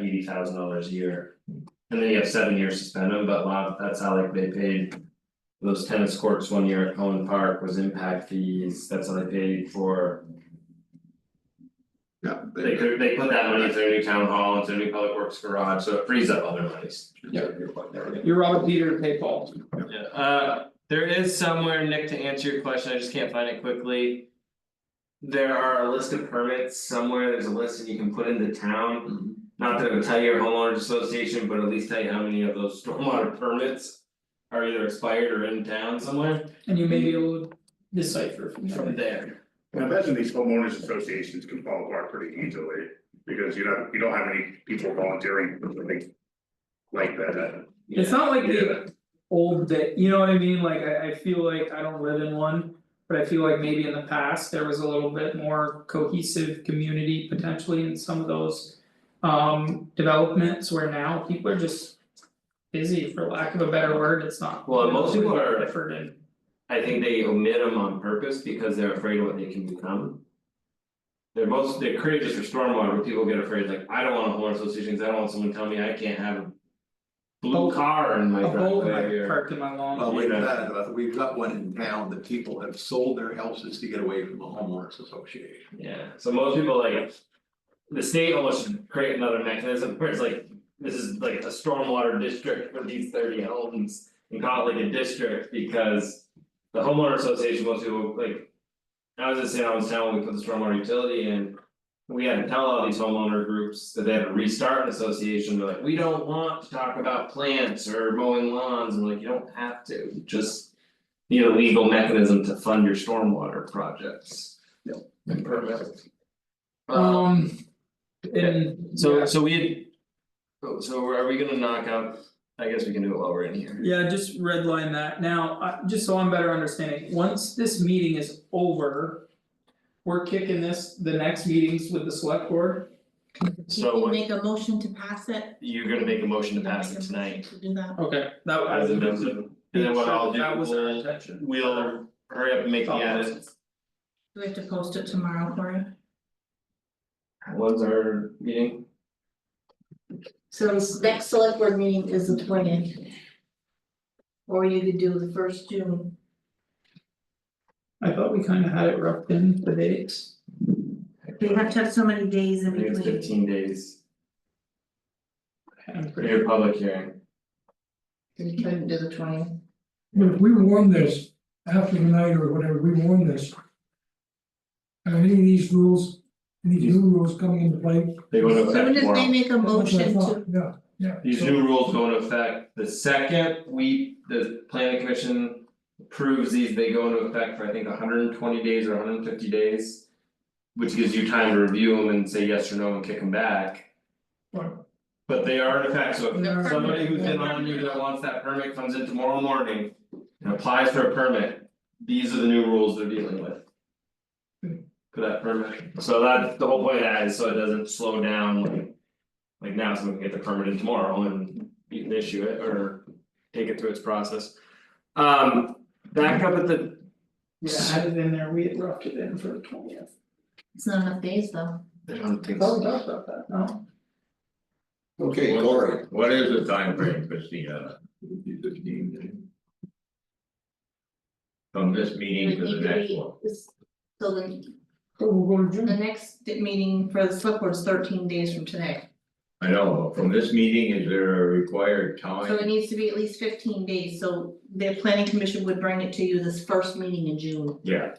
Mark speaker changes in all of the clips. Speaker 1: eighty thousand dollars a year. And then you have seven years to spend them, but a lot, that's how like they paid. Those tennis courts one year at Cohen Park was impact fees, that's how they paid for,
Speaker 2: yeah,
Speaker 1: they
Speaker 2: they,
Speaker 1: could, they put that money into their new town hall, into their new public works garage, so it frees up other monies.
Speaker 3: You're Robert Peter to pay Paul.
Speaker 1: Yeah, uh, there is somewhere, Nick, to answer your question, I just can't find it quickly. There are a list of permits somewhere, there's a list that you can put into town. Not that it would tell your homeowners association, but at least tell you how many of those stormwater permits. Are either expired or in town somewhere
Speaker 3: And you may be able to decipher from
Speaker 1: from
Speaker 3: there.
Speaker 1: there.
Speaker 4: I imagine these homeowners associations can fall apart pretty easily, because you don't, you don't have any people volunteering for something Like that,
Speaker 3: It's not like the
Speaker 4: yeah,
Speaker 3: old day, you know what I mean, like I I feel like I don't live in one. But I feel like maybe in the past, there was a little bit more cohesive community potentially in some of those. Um developments where now people are just busy, for lack of a better word, it's not.
Speaker 1: Well, and most people are-
Speaker 3: Different and.
Speaker 1: I think they omit them on purpose because they're afraid of what they can become. They're most, they're courageous for stormwater, but people get afraid, like, I don't want a homeowner association, 'cause I don't want someone telling me I can't have. a Blue
Speaker 3: Boat.
Speaker 1: car in my
Speaker 3: A boat
Speaker 1: driveway
Speaker 3: I
Speaker 1: or-
Speaker 3: parked in my lawn.
Speaker 2: Well, we've
Speaker 1: Yeah.
Speaker 2: got, uh, we've got one in town that people have sold their houses to get away from the homeowners association.
Speaker 1: Yeah, so most people like. The state almost should create another mechanism where it's like, this is like a stormwater district for these thirty homes. And call it like a district because the homeowner association, most people like. I was in St. Albans town, when we put the stormwater utility in. We had to tell all these homeowner groups that they had to restart an association, they're like, we don't want to talk about plants or mowing lawns, and like, you don't have to, just. Need a legal mechanism to fund your stormwater projects. And permits. Um,
Speaker 3: Um. And.
Speaker 1: so so we had. oh, So are we gonna knock out, I guess we can do it while we're in here.
Speaker 3: Yeah, just redline that now, uh, just so I'm better understanding, once this meeting is over. We're kicking this, the next meetings with the select board,
Speaker 5: Did
Speaker 1: So
Speaker 5: you
Speaker 1: what-
Speaker 5: make a motion to pass it?
Speaker 1: You're gonna make a motion to pass it
Speaker 5: Make a motion
Speaker 1: tonight.
Speaker 5: To do that.
Speaker 3: okay, that
Speaker 1: As
Speaker 3: was.
Speaker 1: amended. And then what I'll do,
Speaker 3: That was our
Speaker 1: we'll
Speaker 3: intention.
Speaker 1: we'll hurry up and make the edits.
Speaker 5: Do we have to post it tomorrow, Cory?
Speaker 1: When's our meeting?
Speaker 5: So this next select board meeting is the twentieth. Or you could do the first June.
Speaker 3: I thought we kinda had it roughed in the dates,
Speaker 5: You have to have so many days
Speaker 1: I
Speaker 5: in
Speaker 1: think it's
Speaker 5: between.
Speaker 1: fifteen days,
Speaker 3: I'm
Speaker 1: for
Speaker 3: pretty.
Speaker 1: your public hearing.
Speaker 5: You couldn't do the twentieth.
Speaker 6: But if we warn this after tonight or whatever, we warn this. Are any of these rules, any new rules coming into play?
Speaker 1: They go into
Speaker 5: So when
Speaker 1: effect
Speaker 5: does they
Speaker 1: tomorrow.
Speaker 5: make a motion
Speaker 6: That's what I
Speaker 5: to,
Speaker 6: thought, Yeah, yeah.
Speaker 1: These
Speaker 6: So-
Speaker 1: new rules go into effect the second we, the planning commission approves these, they go into effect for I think hundred and twenty days or hundred and fifty days. Which gives you time to review them and say yes or no and kick them back.
Speaker 6: Right.
Speaker 1: But they are in effect, so
Speaker 5: They're
Speaker 1: if somebody who's in
Speaker 5: permanent.
Speaker 1: on you that wants that permit comes in tomorrow morning and applies for a permit, these are the new rules they're dealing with. For that permit, so that, the whole point of that is so it doesn't slow down like. Like now someone can get the permit in tomorrow and you can issue it or take it through its process. Um, back up at the,
Speaker 3: Yeah, I had it in there, we had roughed it in for the twentieth.
Speaker 5: it's not enough days though.
Speaker 1: I don't think
Speaker 3: Oh,
Speaker 1: so.
Speaker 3: about that, no,
Speaker 2: Okay, Cory.
Speaker 7: What is the time frame, Christina, from this meeting to the next one?
Speaker 5: So the,
Speaker 6: So we'll go to
Speaker 5: the
Speaker 6: June.
Speaker 5: next meeting for the select board is thirteen days from today.
Speaker 7: I know, but from this meeting, is there a required
Speaker 1: Oh,
Speaker 5: So it
Speaker 7: time?
Speaker 5: needs to be at least fifteen days, so the planning commission would bring it to you this first meeting in June.
Speaker 7: Yeah.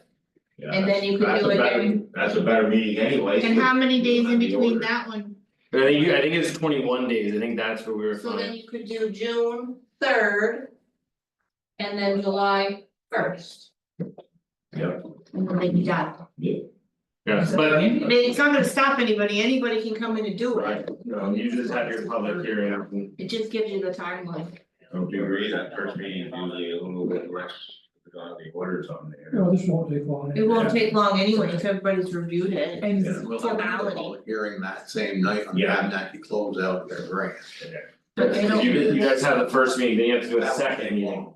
Speaker 7: Yeah,
Speaker 5: And then you could
Speaker 7: that's
Speaker 5: do
Speaker 7: a
Speaker 5: it
Speaker 7: better,
Speaker 5: every,
Speaker 7: that's a better meeting anyway.
Speaker 5: and how many days in
Speaker 7: That'd be
Speaker 5: between
Speaker 7: ordered.
Speaker 5: that one?
Speaker 1: I think you, I think it's twenty one days, I think that's where we were
Speaker 5: So then
Speaker 1: fine,
Speaker 5: you could do June third. And then July first.
Speaker 7: Yeah.
Speaker 5: And then they'd be done.
Speaker 1: yeah, but
Speaker 5: I mean, it's not gonna stop anybody, anybody can come in and do it,
Speaker 1: Right, no, you just have your public hearing,
Speaker 5: it just gives you the timeline.
Speaker 7: Don't you agree that first meeting is usually a little bit less, because the orders on there?
Speaker 6: No, this won't take long.
Speaker 5: It won't take long anyway, if everybody's reviewed it.
Speaker 3: and
Speaker 7: Yeah.
Speaker 2: We'll have another
Speaker 5: Formality.
Speaker 2: public Hearing that same night on
Speaker 7: Yeah.
Speaker 2: Abnaki close out their grant.
Speaker 5: But they don't-
Speaker 1: you you guys have the first meeting, then you have to do a
Speaker 2: That would take
Speaker 1: second meeting,
Speaker 2: long.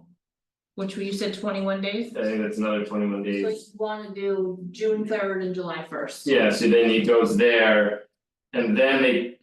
Speaker 5: Which you said twenty one days?
Speaker 1: I think that's another twenty one days.
Speaker 5: So you wanna do June third and July first?
Speaker 1: Yeah, so then he goes there. And then they